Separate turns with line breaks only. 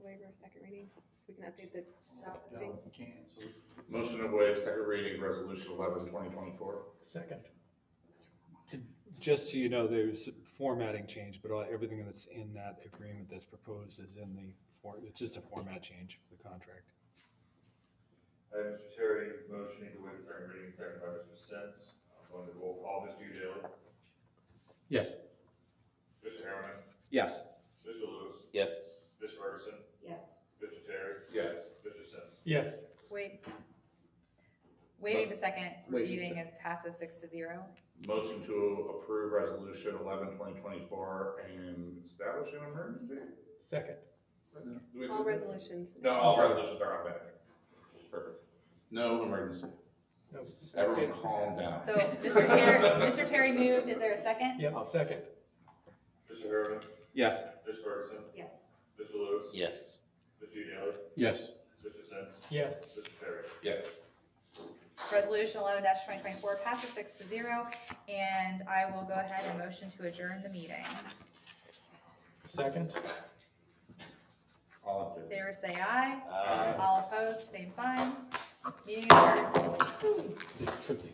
a second reading? So we can update the job listing.
Motion to waive second reading, resolution eleven, twenty twenty-four.
Second.
Just so you know, there's formatting change, but all- everything that's in that agreement that's proposed is in the, for- it's just a format change for the contract.
Uh, Mr. Terry, motioning to waive the second reading, second by Mr. Sins. I'm going to roll call, Mr. Daly,
Yes.
Mr. Harriman,
Yes.
Mr. Lewis,
yes,
Ms. Ferguson,
yes,
Mr. Terry,
Yes.
Mr. Sins.
Yes.
Wait. Waiving the second
Wait, you
reading is passes six to zero.
Motion to approve resolution eleven, twenty twenty-four and establish an emergency?
Second.
Do we-
All resolutions.
No, all resolutions are automatic. Perfect. No emergency. Everyone calm
Oh.
down.
So Mr. Terry, Mr. Terry moved, is there a second?
Yeah, second.
Mr. Harriman,
Yes.
Ms. Ferguson,
yes.
Mr. Lewis,
yes.
Mr. Daly,
Yes.
Mr. Sins,
Yes.
Mr. Terry.
Yes.
Resolution eleven twenty twenty-four passes six to zero, and I will go ahead and motion to adjourn the meeting.
Second.
All in favor?
Favor say aye,
Uh,
all opposed, same sign, meeting adjourned.